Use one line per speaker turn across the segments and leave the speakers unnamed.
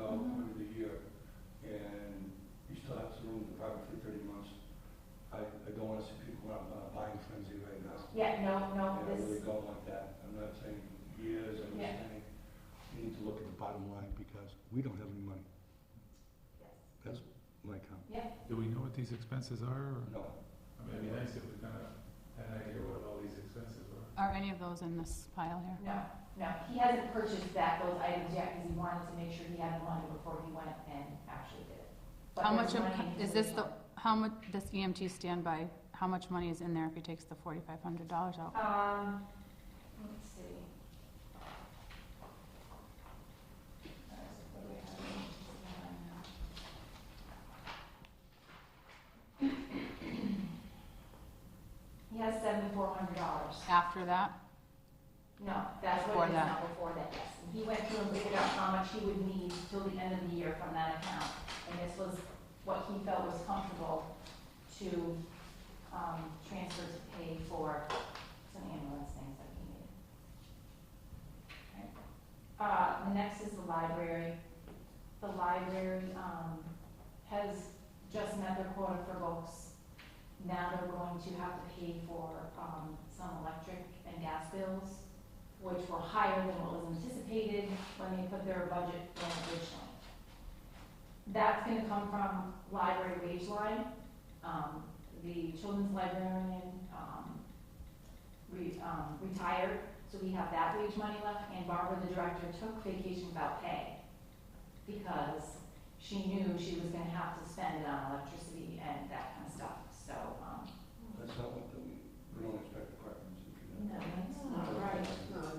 out over the year, and you still have to live in the apartment for thirty months. I, I don't wanna see people on a uh, buying frenzy right now.
Yeah, no,
And
no,
I really
this,
don't like that. I'm not saying years, I'm just
Yeah.
saying, we need to look at the bottom line, because we don't have any money.
Yes.
That's my comment.
Do we know what these expenses are? or-
No,
I mean, it'd be nice if we kind of had an idea what all these expenses were.
Are any of those in this pile here?
no, no, he hasn't purchased that, those items yet, because he wanted to make sure he had the money before he went and actually did it. But
How
there's
much of,
money in his
is this the,
account.
how much, E this EMT standby, how much money is in there if he takes the forty-five hundred dollars out?
Um, let's see. He has seventy-four hundred dollars.
After that,
No, that's
Before
what it is
that.
now before that, yes. And he went through and figured out how much he would need till the end of the year from that account. And this was what he felt was comfortable to, um, transfer to pay for some ambulance things that he needed. Right. Uh, the next is the library. The library, um, has just met their quota for books. Now they're going to have to pay for, um, some electric and gas bills which were higher than what was anticipated when they put their budget in originally. That's gonna come from library wage line. Um, the children's librarian, um, re, um, retired, so we have that wage money left, and Barbara, the director, took vacation without pay because she knew she was gonna have to spend it on electricity and that kind of stuff, so, um,
that's not what, the- we don't expect departments to do that.
no, it's not right.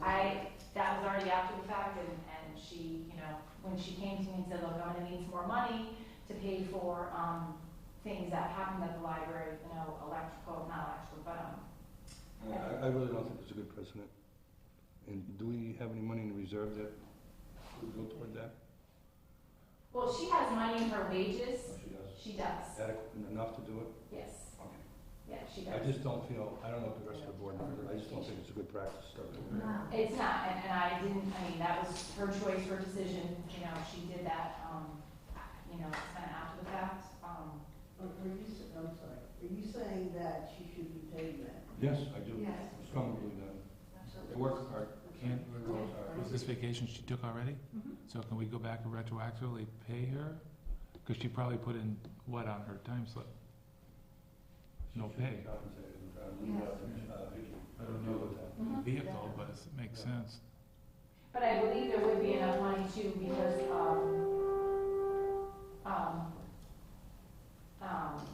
I, that was already after the fact, and, and she, you know, when she came to me and said, look, I'm gonna need some more money to pay for, um, things that happened at the library, you know, electrical, not electrical, but, um,
And Uh, I, I really don't think it's a good precedent. And do we have any money in reserve that would go toward that?
well, she has money in her wages,
Or she does?
she does,
Adequate enough to do it?
yes,
Okay.
yeah, she
I
does.
just don't feel, I don't know if the rest of the board members, I just don't think it's a good practice.
It's not, and, and I didn't, I mean, that was her choice, her decision, you know, she did that, um, you know, it's kind of after the fact, um,
Are you, s- I'm sorry, are you saying that she should be paid that?
Yes, I do.
yes.
Strongly believe that. They work hard.
Can't-
They work hard.
Was this vacation she took already?
Mm-hmm.
Mhm.
So can we go back and retroactively pay her? Because she probably put in what on her time slip? No
She should be
pay.
compensated, uh, leave out the, uh, Vicky.
I don't know what
that.
Mhm.
Vehicle, but it makes sense.
But I believe there would be enough money too, because, um, um, um,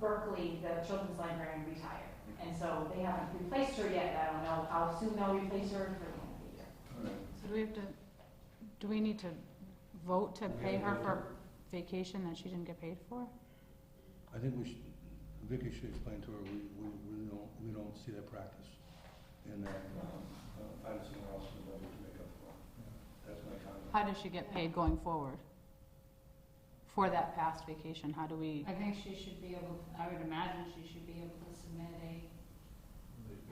Berkeley, the children's librarian retired. And so they haven't replaced her yet, I don't know how soon they'll replace her for the end of the year.
All right.
so do we have to, do we need to vote to
We
pay
have
her
to
for vacation that she didn't get paid for?
I think we should, Vicky should explain to her, we, we, we don't, we don't see that practice. And that, um, uh, find somewhere else in the budget to make up for it. That's my comment.
How does she get paid going forward? For that past vacation, how do we,
I think she should be able, I would imagine she should be able to submit a,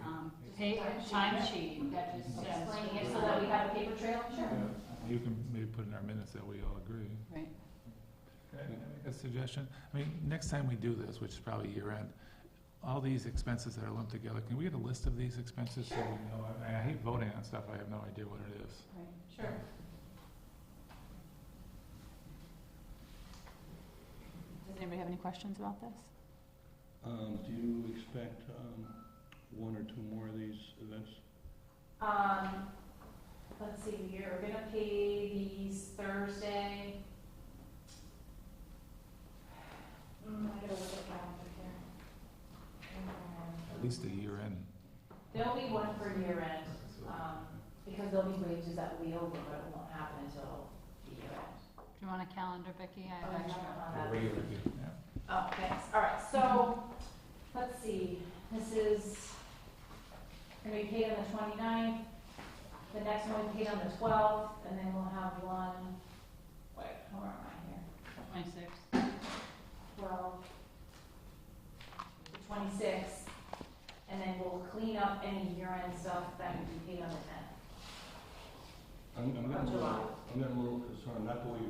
um, pay, timesheet that just says.
Explaining it so that we have a paper trail, sure.
You can maybe put in our minutes that we all agree.
right?
Can I make a suggestion? I mean, next time we do this, which is probably year end, all these expenses that are lumped together, can we get a list of these expenses so we know? I- I hate voting on stuff, I have no idea what it is.
Sure.
Does anybody have any questions about this?
Um, do you expect, um, one or two more of these events?
Um, let's see, we are gonna pay these Thursday. Mm, I gotta look at that
At
up here.
least a year end.
There'll be one for year end, um, because there'll be wages that will be over, but it won't happen until the year end.
Do you want a calendar, Vicki? I have extra.
Uh,
Yeah.
Oh, thanks, all right, so, let's see, this is, gonna be paid on the 29th. the next one paid on the twelfth, and then we'll have one, wait, where am I here?
Twenty-six.
Twelve, the twenty-sixth, and then we'll clean up any year-end stuff that would be paid on the tenth.
I'm, I'm getting a
July.
little, I'm getting a little concerned, not the way you